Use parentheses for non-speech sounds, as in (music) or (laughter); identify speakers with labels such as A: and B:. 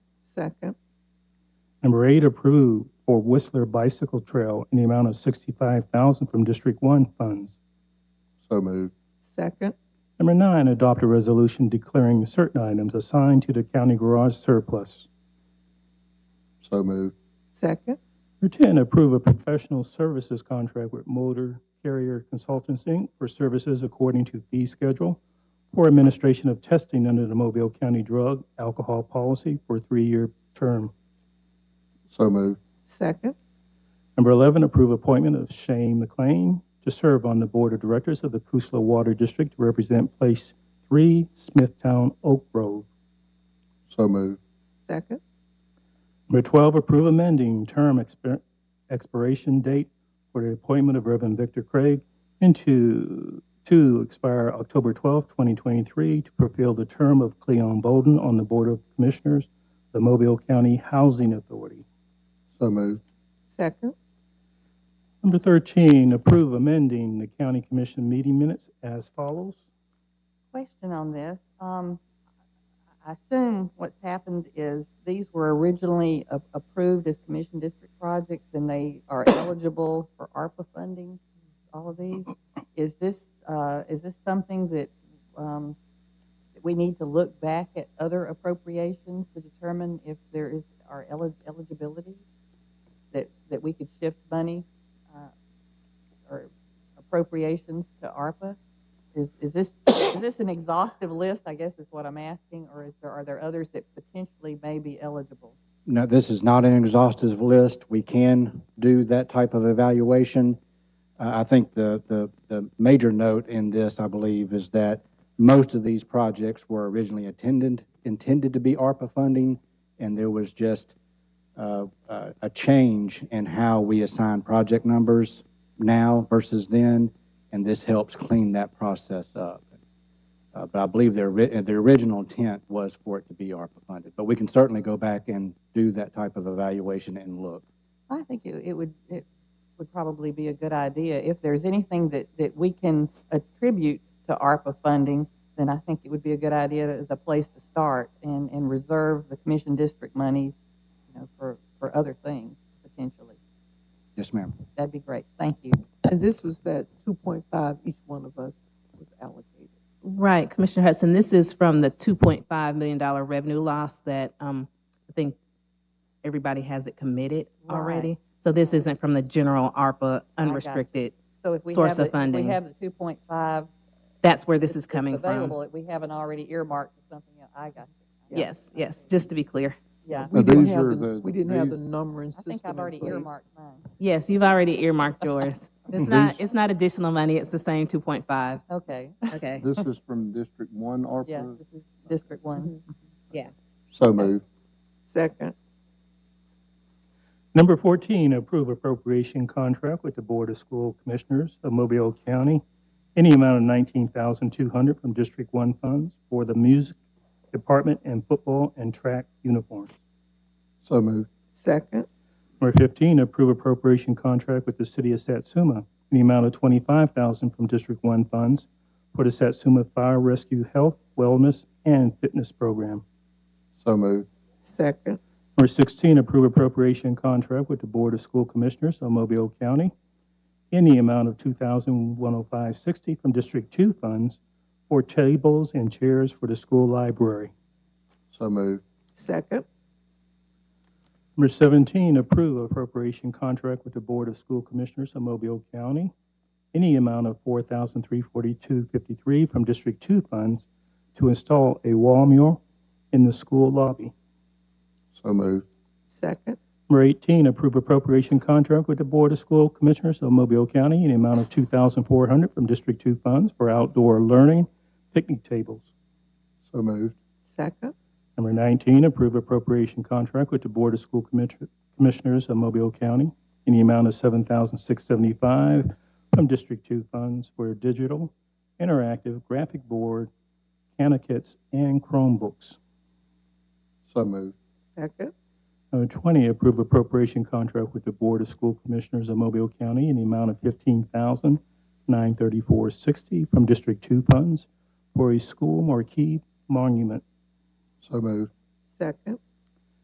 A: Second.
B: Number eight, approve for Whistler Bicycle Trail in the amount of sixty-five thousand from District One funds.
C: So moved.
A: Second.
B: Number nine, adopt a resolution declaring certain items assigned to the county garage surplus.
C: So moved.
A: Second.
B: Number ten, approve a professional services contract with Motor Carrier Consultants, Inc. for services according to fee schedule for administration of testing under the Mobile County Drug Alcohol Policy for a three-year term.
C: So moved.
A: Second.
B: Number 11, approve appointment of Shane McLean to serve on the Board of Directors of the Kusla Water District to represent Place 3, Smithtown, Oak Grove.
C: So moved.
A: Second.
B: Number 12, approve amending term expir- expiration date for the appointment of Reverend Victor Craig into, to expire October 12, 2023, to fulfill the term of Cleon Bolden on the Board of Commissioners, the Mobile County Housing Authority.
C: So moved.
A: Second.
B: Number 13, approve amending the County Commission meeting minutes as follows.
D: Question on this. Um, I assume what's happened is these were originally a- approved as commission district projects and they
A: (coughs)
D: are eligible for ARPA funding, all of these. Is this, uh, is this something that, um, that we need to look back at other appropriations to determine if there is, our eli- eligibility? That, that we could shift money, uh, or appropriations to ARPA? Is, is this, is this an exhaustive list, I guess is what I'm asking, or is there, are there others that potentially may be eligible?
E: No, this is not an exhaustive list. We can do that type of evaluation. Uh, I think the, the, the major note in this, I believe, is that most of these projects were originally intended, intended to be ARPA funding, and there was just uh, uh, a change in how we assign project numbers now versus then, and this helps clean that process up. Uh, But I believe their, ri- uh, their original intent was for it to be ARPA funded. But we can certainly go back and do that type of evaluation and look.
D: I think it, it would, it would probably be a good idea. If there's anything that, that we can attribute to ARPA funding, then I think it would be a good idea as a place to start and, and reserve the commission district monies, you know, for, for other things potentially.
E: Yes, ma'am.
D: That'd be great. Thank you.
A: And this was that 2.5 each one of us was allocated.
F: Right, Commissioner Hudson, this is from the $2.5 million revenue loss that um, I think everybody has it committed
D: Right.
F: already. So this isn't from the general ARPA
D: got you.
F: unrestricted.
D: So if we have,
F: Source of
D: the- if
F: funding.
D: we have the two point five
F: That's where this
D: it's-
F: is
D: it's
F: coming
D: Available,
F: from.
D: that we haven't already earmarked for something else. I got you. Yeah.
F: Yes, yes, just to be clear.
D: Yeah,
A: We
C: Now,
A: didn't
C: these
A: have
C: are
A: the-
C: the-
A: We didn't have
C: these-
A: the numbering
D: I
A: system.
D: think I've
A: in
D: already
A: place.
D: earmarked mine.
F: Yes, you've already
D: (laughs)
F: earmarked yours. It's not, it's not additional money, it's the same 2.5,
D: Okay,
F: okay?
C: This is from District One
D: yeah,
C: ARPA?
D: this is District One.
C: So moved.
A: Second.
B: Number 14, approve appropriation contract with the Board of School Commissioners of Mobile County in the amount of 19200 from District 1 funds for the music department and football and track uniforms.
C: So moved.
A: Second.
B: Number 15, approve appropriation contract with the City of Satsuma in the amount of 25000 from District 1 funds for the Satsuma Fire Rescue Health, Wellness, and Fitness Program.
C: So moved.
A: Second.
B: Number 16, approve appropriation contract with the Board of School Commissioners of Mobile County in the amount of $2,105.60 from District 2 funds for tables and chairs for the school library.
C: So moved.
A: Second.
B: Number 17, approve appropriation contract with the Board of School Commissioners of Mobile County in the amount of $4,342.53 from District 2 funds to install a wall mural in the school lobby.
C: So moved.
A: Second.
B: Number 18, approve appropriation contract with the Board of School Commissioners of Mobile County in the amount of 2400 from District 2 funds for outdoor learning picnic tables.
C: So moved.
A: Second.
B: Number 19, approve appropriation contract with the Board of School Commis- Commissioners of Mobile County in the amount of 7675 from District 2 funds for digital, interactive, graphic board, Canna kits, and Chromebooks.
C: So moved.
A: Second.
B: Number 20, Uh, approve appropriation contract with the Board of School Commissioners of Mobile County in the amount of 15934 dollars from District 2 funds for a school marquee monument.
C: So moved.
A: Second.